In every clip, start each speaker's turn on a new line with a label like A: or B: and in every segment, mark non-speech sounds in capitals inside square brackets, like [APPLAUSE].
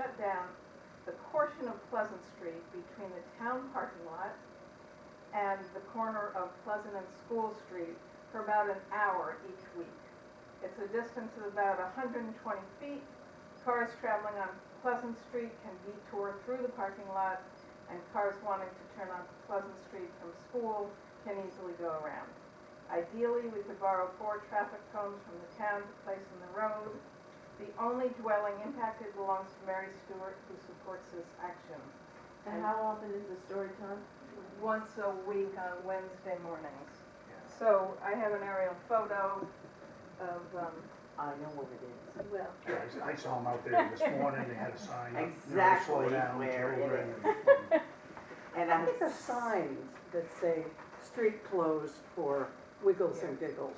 A: down the portion of Pleasant Street between the town parking lot and the corner of Pleasant and School Street for about an hour each week. It's a distance of about 120 feet. Cars traveling on Pleasant Street can detour through the parking lot, and cars wanting to turn onto Pleasant Street from school can easily go around. Ideally, we could borrow four traffic cones from the town to place in the road. The only dwelling impacted belongs to Mary Stewart, who supports this action.
B: And how often is the story time?
A: Once a week on Wednesday mornings. So I have an aerial photo of, um,
B: I know what it is.
A: well,
C: Yeah, I s- I saw them out there this morning, they had a sign. up, you know, to slow
D: Exactly
C: down
D: where it
C: children.
D: And
E: I
D: I'm,
E: think there's signs that say, street closed for wiggles and giggles.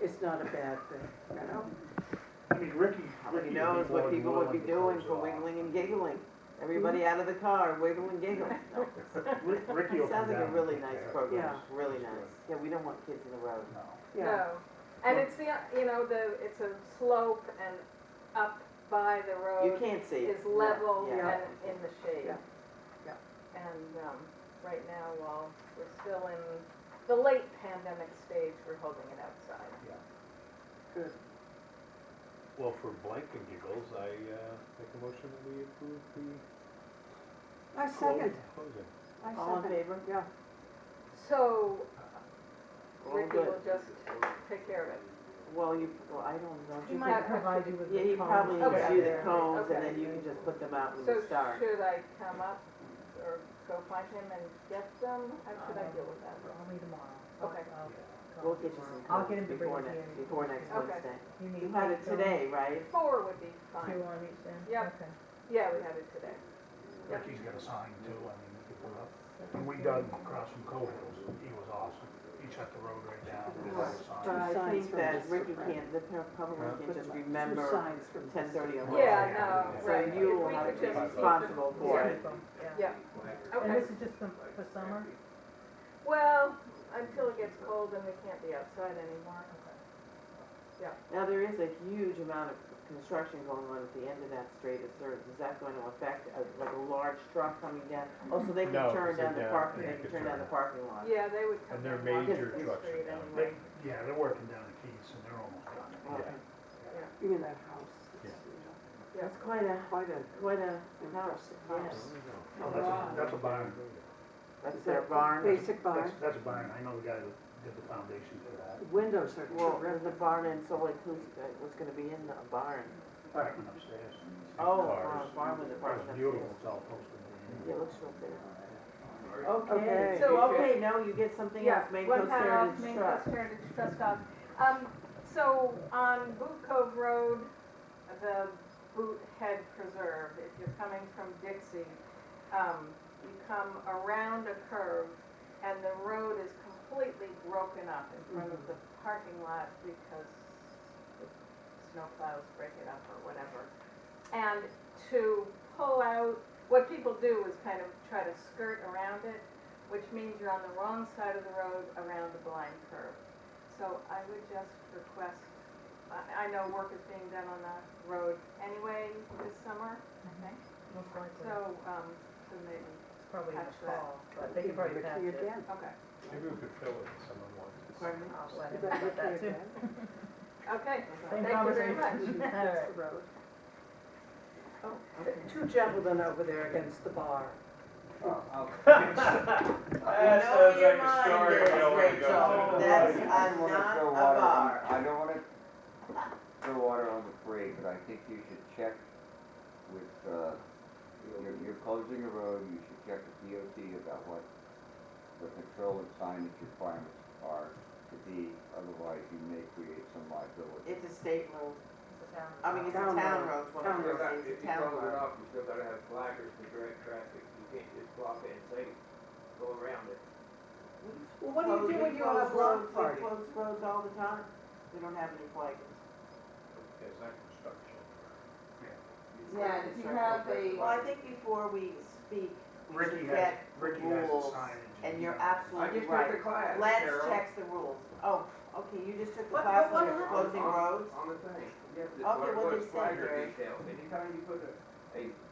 E: It's not a bad thing, you know?
C: I mean, Ricky,
D: who
C: Ricky. would
D: knows
C: be more
D: what
C: than
D: people would
C: willing
D: be
C: to
D: doing
C: close
D: for
C: it off.
D: wiggling and giggling. Everybody out of the car, wiggle and giggle.
C: [LAUGHS]
D: No.
C: Rick- Ricky will come
D: Sounds like a
C: down
D: really
C: and
D: nice
C: prepare.
D: program,
E: Yeah.
D: really nice. Yeah, we don't want kids in the road.
C: No.
E: Yeah.
A: no. And it's the, you know, the, it's a slope and up by the
D: You
A: road.
D: can't see it.
A: is level
D: Yeah, yeah.
A: and in the shade.
E: Yeah, yeah.
A: And, um, right now, while we're still in the late pandemic stage, we're holding it outside.
F: Well, for blank and giggles, I uh, make a motion that we approve the
E: I second,
F: clo- closing.
E: I
D: All in
E: second.
D: favor?
E: Yeah,
A: So
D: All
A: Ricky will
D: good.
A: just take care of it.
D: Well, you, well, I don't know.
A: You
D: You
A: might-
D: can-
A: provide you
D: Yeah, he probably gives
A: Okay.
D: you the cones
A: Okay.
D: and then you can just put them out and
A: So
D: start.
A: should I come up or go find him and get them? How should I deal with that?
G: Only tomorrow.
A: Okay.
G: I'll- I'll-
D: We'll get you some
G: I'll get
D: cones
G: him to bring
D: before
G: it here.
D: next, before next
A: Okay.
D: Wednesday.
G: You need.
D: You had it
G: two-
D: today, right?
A: Four would be
G: Two
A: fine.
G: on each end?
A: Yep.
G: Okay.
A: Yeah, we had it today.
C: Ricky's got a sign too, I mean, we could put up. When we dug across from Cohills, he was awesome. He shut the road right down, he had a
D: But
C: sign.
D: I
E: signs
D: think
E: from
D: that
E: Mr.
D: Ricky
E: Frank.
D: can't, the pa- public
F: Yeah.
D: can't just
E: Two
D: remember
E: signs from
D: ten thirty or
C: Well,
A: Yeah,
C: yeah, yeah.
A: no, right.
D: So
A: If
D: you will
A: we
D: have
A: could
D: to be
A: just keep them-
D: responsible for
A: yeah.
D: it.
G: Yeah.
A: Yeah,
G: And
A: okay.
G: this is just the- for summer?
A: Well, until it gets cold and we can't be outside anymore.
D: Now, there is a huge amount of construction going on at the end of that street at Third. Is that going to affect, uh, like a large truck coming down? Oh, so they can
F: No,
D: turn
F: 'cause they
D: down the
F: can't.
D: parking,
F: They
D: they
F: can
D: can turn
F: turn
D: down the
F: it.
D: parking lot.
A: Yeah, they would come.
F: And they're
A: down
F: major
A: Washington
F: trucks
A: Street
F: down
A: anyway.
C: They, yeah, they're working down the Keys and they're almost done.
D: Okay.
E: even that house. it's,
A: Yeah.
D: That's quite a,
E: Quite a
D: quite a house,
E: impressive
D: yes.
E: house.
C: No,
D: Oh,
C: that's, a- that's a barn,
D: That's their barn.
E: Basic barn.
C: that's, that's a barn, I know the guy that did the foundation for that.
E: Windows are
D: Well,
E: terrific.
D: there's a barn in Salt Lake, who's, uh, what's gonna be in the barn?
C: Apartment upstairs.
D: Oh,
F: Cars.
D: uh, barn with a barn
C: It's beautiful,
D: upstairs.
C: it's all posted.
D: Yeah, it looks real big.
E: Okay.
D: Okay, so, okay, now you get something else, Maine
A: one
D: Coast
A: pound off
D: Heritage
A: Maine
D: Trust.
A: Coast Heritage Trust off. Um, so on Boot Cove Road, the Boot Head Preserve, if you're coming from Dixie, um, you come around a curve and the road is completely broken up in front of
D: Mm-hmm.
A: the parking lot because the snowplows break it up or whatever. And to pull out, what people do is kind of try to skirt around it which means you're on the wrong side of the road around a blind curve. So I would just request, I, I know work is being done on that road anyway this summer, I
G: Mm-hmm.
A: think,
G: Most likely.
A: so, um, so maybe,
G: It's probably in the
A: patch that.
G: fall, but they could probably
E: Ricky
G: patch it.
E: again.
A: okay,
F: Maybe we could fill it if someone wants.
D: Pardon me?
G: I'll let
E: Is
G: him
E: that
G: know that
E: Ricky
G: too.
E: again? [LAUGHS]
A: okay. Thank
G: Same
A: you very
G: conversation.
A: much.
G: All right.
E: That's the
D: [LAUGHS]
E: road. Oh, the two gentlemen over there against the bar.
D: [LAUGHS] That sounds like a story we don't wanna go
H: I
D: to. That's a not a bar.
H: I don't wanna throw water on the parade, but I think you should check with, uh, you're, you're closing a road, you should check with DOT about what the control and signage requirements are to be, otherwise you may create some liability.
D: It's a state road,
G: It's a town.
D: I mean, it's a
E: Town
D: town
E: road.
D: road, it's one of
E: Town
D: those
E: road.
D: things, it's a
I: If you
D: town
I: close it
D: road.
I: off, you still gotta have flaggers to direct traffic, you can't just block it and say, go around it.
E: Well, what do you do when you have a
D: We
E: block party?
D: close roads all the time, we don't have any flaggers.
F: There's that construction.
D: Yeah,
B: if you have a-
D: Well, I think before we speak, we
C: [LAUGHS] Ricky
D: should
C: has,
D: get
C: Ricky has the
D: rules,
C: signage.
D: and you're
I: I
D: absolutely
I: just took
D: right.
I: the class,
D: Lance
I: Carol,
D: checks the rules. Oh, okay, you just took the
E: What-
D: class
E: what-
D: on
E: what
D: closing
I: happened?
D: roads?
I: On the thing, you have to,
D: Okay,
I: what it
D: what did it
I: was,
D: say,
I: flagger
D: Jerry?
I: detail, anytime you put a, a